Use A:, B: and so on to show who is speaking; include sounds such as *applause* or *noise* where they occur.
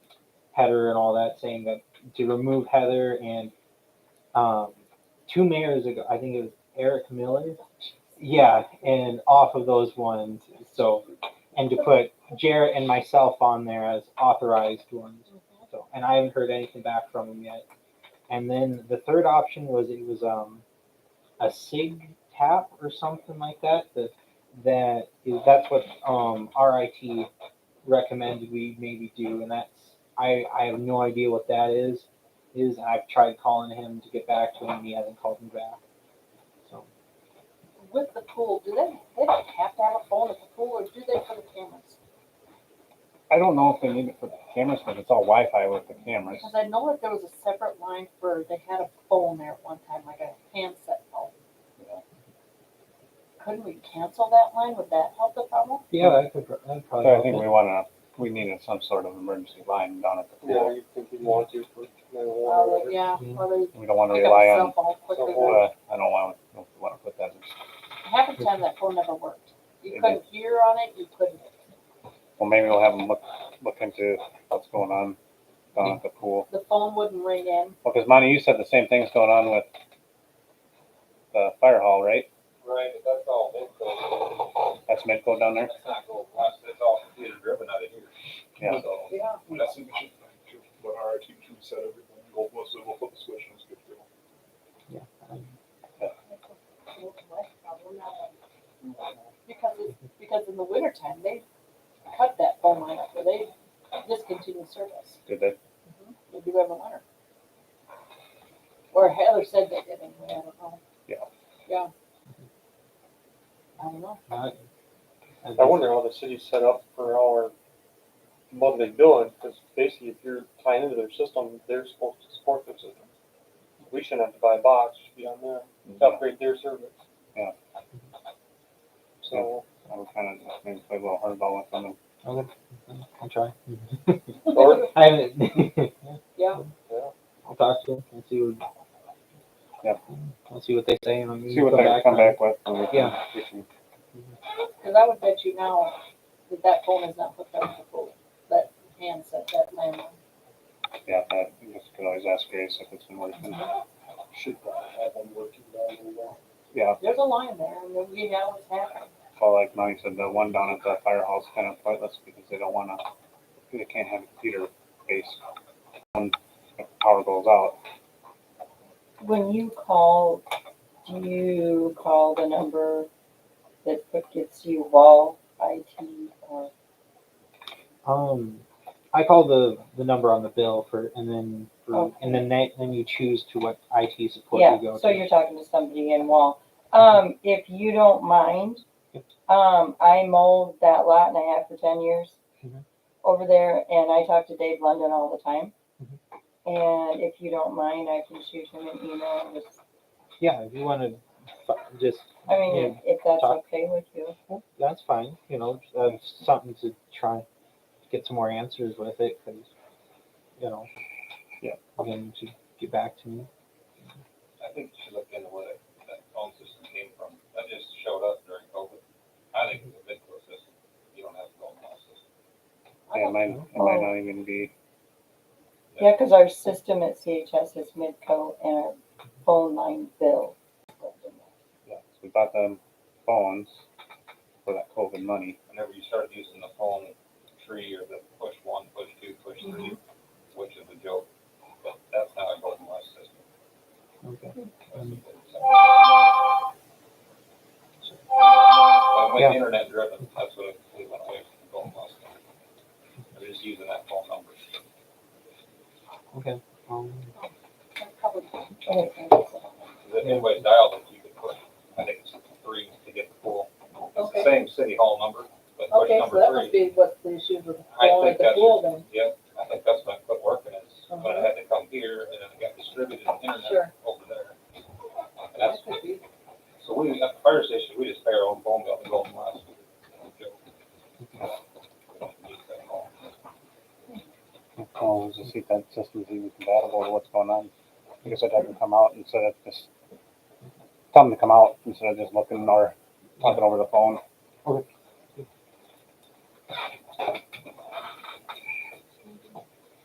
A: Heather and all that, saying that to remove Heather and um, two mayors ago, I think it was Eric Miller. Yeah, and off of those ones. So, and to put Jarrett and myself on there as authorized ones. So, and I haven't heard anything back from them yet. And then the third option was it was um, a SIG tap or something like that. That that is that's what um, RIT recommended we maybe do, and that's I I have no idea what that is. Is I've tried calling him to get back to him, and he hasn't called me back. So
B: With the pool, do they, they don't have to have a phone at the pool, or do they for the cameras?
C: I don't know if they need it for the cameras, but it's all Wi-Fi with the cameras.
B: Because I know that there was a separate line for, they had a phone there at one time, like a handset phone.
C: Yeah.
B: Couldn't we cancel that line? Would that help the problem?
A: yeah, that could that
C: So
A: probably.
C: I think we wanna, we needed some sort of emergency line down at the
D: Yeah,
C: pool.
D: you think you'd want to for nine
B: Uh,
D: one one.
B: yeah,
A: Mhm.
B: or they
C: We don't wanna
B: pick up a
C: rely
B: cell
C: on,
B: phone quicker.
D: Someone-
B: than-
C: uh, I don't wanna, don't wanna put that,
B: Half the time that phone never worked. You
C: It
B: couldn't hear on it, you couldn't.
C: well, maybe we'll have them look, look into what's going on down at the pool.
B: The phone wouldn't ring in.
C: Well, cause Monty, you said the same thing's going on with the fire hall, right?
E: Right, but that's all Midco.
C: That's Midco down there?
E: That's not Gold Rush, that's all computer driven out of here.
C: Yeah.
E: So,
B: Yeah.
F: Well, I think we should, thank you, but our team should set everything, go, we'll, we'll flip the switch and it's good to go.
B: Because it's, because in the wintertime, they cut that phone line up, or they discontinue service.
C: Did they?
B: They do every winter. Or Heather said they did anyway, I don't know.
C: Yeah.
B: Yeah. I don't know.
A: Not-
D: I wonder how the city's set up for our monthly billing, because basically if you're tying into their system, they're supposed to support their system. We shouldn't have to buy a box, it should be on there, to upgrade their service.
C: Yeah.
D: So,
C: I was kinda, maybe play a little hardball with them and
A: Okay, I'll try.
D: or,
A: uh, I haven't.
B: *laughs*
A: *laughs*
B: Yeah,
A: I'll talk to him and see what.
C: Yep.
A: I'll see what they say and I'll
C: see what they come back with. and we can-
A: Yeah.
C: we can-
B: because I would bet you now that that phone is not hooked up to the phone, that handset, that landline.
C: Yeah, that, you just could always ask Grace if it's been working.
F: Should probably have them working down there now.
C: Yeah,
B: There's a line there, and then we know what's happening.
C: well, like Monty said, the one down at the firehouse kind of pointless because they don't wanna, they can't have a computer based. When the power goes out,
G: When you call, do you call the number that gets you wall IT or?
A: Um, I call the the number on the bill for, and then for,
G: Okay.
A: and then they, then you choose to what IT support
G: Oh. Yeah,
A: you go
G: so
A: to.
G: you're talking to somebody in wall. Um, if you don't mind, um, I mowed that lot and I have for ten years
A: Mhm.
G: over there and I talk to Dave London all the time.
A: Mhm.
G: And if you don't mind, I can shoot him an email and just,
A: yeah, if you want to, just
G: I mean, if that's
A: Talk.
G: okay with you.
A: well, that's fine. You know, uh, something to try and get some more answers with it, because you know,
C: Yeah.
A: Then to get back to me.
E: I think you should look into where that- that phone system came from. That just showed up during COVID. I think it's a Midco system. You don't have a Gold Rush system.
B: I
C: it
B: don't-
C: might, it might not even be,
G: Yeah, because our system at CHS is Midco and our phone line bill.
C: yeah, so we bought them phones for that COVID money.
E: Whenever you start using the phone tree or the push one, push two, push three, which is a joke, but that's not a Gold Rush system.
A: Okay.
E: Well, with
A: Yeah.
E: internet driven, that's what we went away from going last time. They're just using that phone number.
A: Okay. Um,
B: that's probably-
E: If anybody dialed it, you could push, I think it's three to get the full. It's the
B: Okay.
E: same city hall number, but push
B: Okay, so
E: number
B: that must
E: three.
B: be what the issue with the
E: I
B: phone
E: think
B: at the
E: that's-
B: pool then.
E: Yep, I think that's when I quit working is when I had to come here and then it got distributed internet
B: Sure.
E: over there. And that's,
B: That could be.
E: so we, at the fire station, we just pay our own phone bill and go last.
C: Oh, just see if that system's even compatible to what's going on. I guess I'd have them come out instead of just, tell them to come out instead of just looking or talking over the phone.
A: Okay.